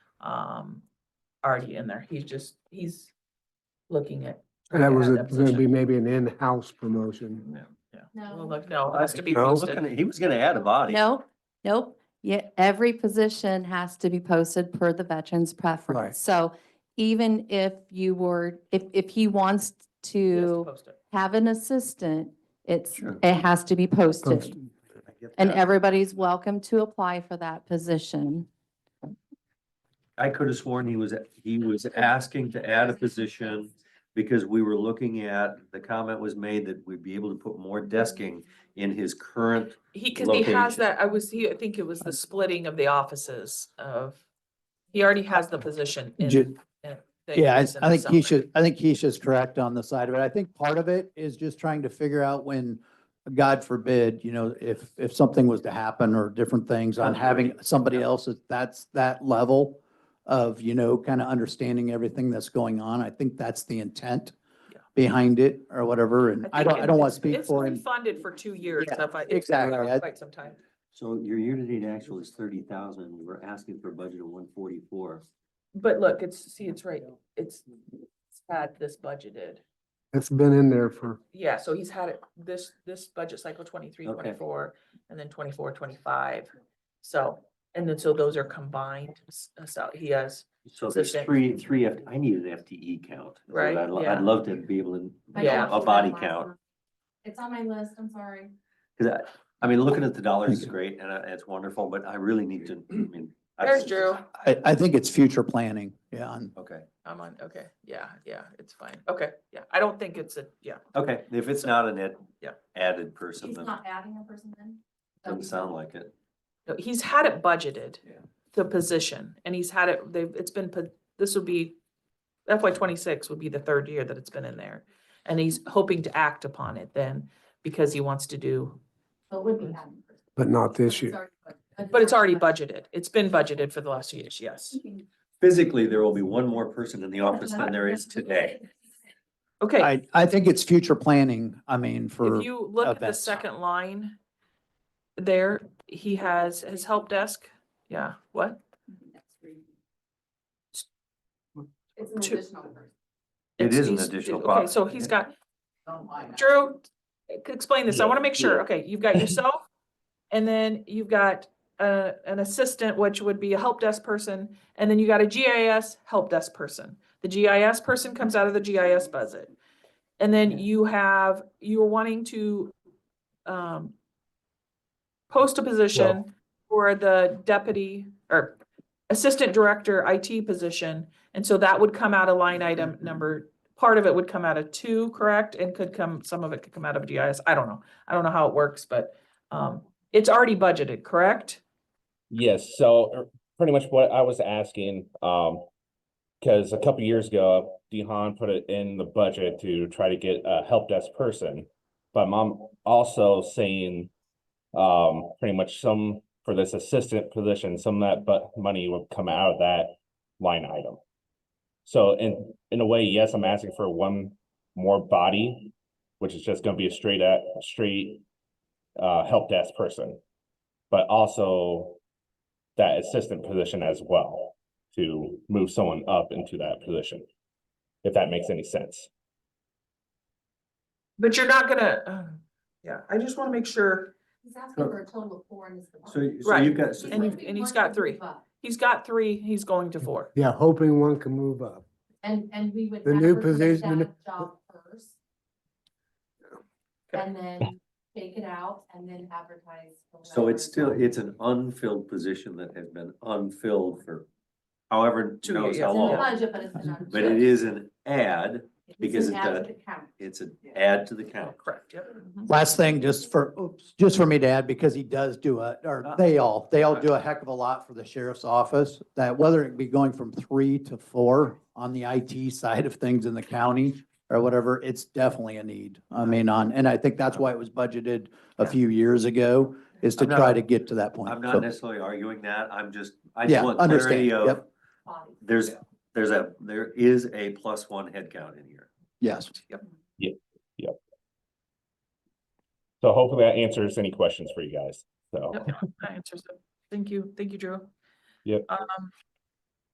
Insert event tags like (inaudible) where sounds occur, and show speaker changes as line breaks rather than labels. um, already in there. He's just, he's looking at.
And that was
Yeah,
a-
that
gonna be
position.
maybe an in-house promotion.
Yeah, yeah.
No.
Well, look, no, it has to be
No, look at
posted.
it. He was gonna add a body.
No, nope. Yeah, every position has to be posted per the veteran's preference. So even if you were, if, if he wants
He has to
to
post it.
have an assistant, it's,
Sure.
it has to be posted.
Posted.
I get
And
that.
everybody's welcome to apply for that position.
I could have sworn he was, he was asking to add a position because we were looking at, the comment was made that we'd be able to put more desking in his current,
He, cause he has
Location.
that, I was, he, I think it was the splitting of the offices of, he already has the position in.
Ju- Yeah, I, I think he
should.
should, I think Keisha's correct on the side of it. I think part of it is just trying to figure out when, God forbid, you know, if, if something was to happen or different things on having somebody else at that's that level of, you know, kind of understanding everything that's going on. I think that's the intent
Yeah.
behind it or whatever. And I
think
don't, I
it-
don't want
it's-
to speak
it's
for
been
him.
Funded for two years.
Yeah,
if I- it's been
exactly.
around
I-
Quite some time.
so your year-to-date actual is thirty thousand, we're asking for a budget of one forty-four.
But look, it's, see, it's right, it's it's had this budgeted.
It's been in there for,
Yeah, so he's had it this, this budget cycle twenty-three,
Okay.
twenty-four, and then twenty-four, twenty-five. So, and then so those are combined, s- uh, so he has,
So there's
Assistant.
three, three, F- I need an FTE count. is what
Right,
I'd, lo-
yeah.
I'd love to be able to,
I Yeah.
a body count.
It's on my list, I'm sorry.
Cause I, I mean, looking at the dollars is great and I- it's wonderful, but I really need to, I mean. I-
there's Drew.
I, I think it's future planning. Yeah. on-
Okay,
I'm on, okay, yeah, yeah, it's fine. Okay, yeah, I don't think it's a, yeah,
okay, if it's not an ed,
Yeah.
added person, then
adding a person then?
doesn't sound like it.
no, he's had it budgeted.
Yeah.
The position, and he's had it, they've, it's been, put. this would be FY twenty-six would be the third year that it's been in there. And he's hoping to act upon it then, because he wants to do
It would be adding.
but not this year.
But it's already budgeted. It's been budgeted for the last two years, yes.
Physically, there will be one more person in the office than there is today.
Okay,
I, I think it's future planning. I mean, for.
if you look at the
events.
second line there, he has his help desk. Yeah, what?
It's
an Two. additional
person.
It
It's-
is an
he's-
additional
Okay,
box.
so he's got, Drew, e- explain this. I want to make sure.
Yeah.
Okay, you've got
(clears throat)
yourself and then you've got uh, an assistant, which would be a help desk person, and then you got a GIS help desk person. The GIS person comes out of the GIS budget. And then you have, you're wanting to um post a position for the deputy or assistant director IT position. And so that would come out of line item
Mm-hmm.
number, part of it would come out of two, correct? And could come, some of it could come out of GIS. I don't know. I don't know how it works, but um it's already budgeted, correct?
Yes, so er, pretty much what I was asking, um, because a couple years ago, Dehan put it in the budget to try to get a help desk person. But I'm also saying, um, pretty much some for this assistant position, some of that but money would come out of that line item. So in in a way, yes, I'm asking for one more body, which is just gonna be a straight at straight uh help desk person. But also that assistant position as well to move someone up into that position. If that makes any sense.
But you're not gonna, uh, yeah, I just want to make sure
He's asking for a total of four and it's.
So, so
Right.
you've got,
And you- and he's got three. he's got three, he's going to four.
Yeah, hoping one can move up.
And, and we would.
The new
advertise
position- the new-
that Job first.
Okay.
And then take it out and then advertise. for
so it's still,
whatever
it's an unfilled position that has been unfilled for however
Two
knows
years.
how
It's in the
long.
budget, but it's an.
But it is an ad,
It's
because
an
it
add
does-
to the count.
it's an add to the count.
Correct, yep.
Last thing, just for, oops, just for me to add, because he does do a,
Uh-huh.
or they all, they all do a heck of a lot for the sheriff's office. That whether it be going from three to four on the IT side of things in the county or whatever, it's definitely a need. I mean, on, and I think that's why it was budgeted a few years ago, is to
I'm not-
try to get to that point.
I'm
So,
not necessarily arguing that, I'm just, I
Yeah,
just want
understand,
clarity of,
yep.
Body.
there's, there's a, there is a plus one headcount in here.
Yes.
So hopefully that answers any questions for you guys. So.
Yep, That answers it. Thank you, thank you, Drew.
Yep.
Um,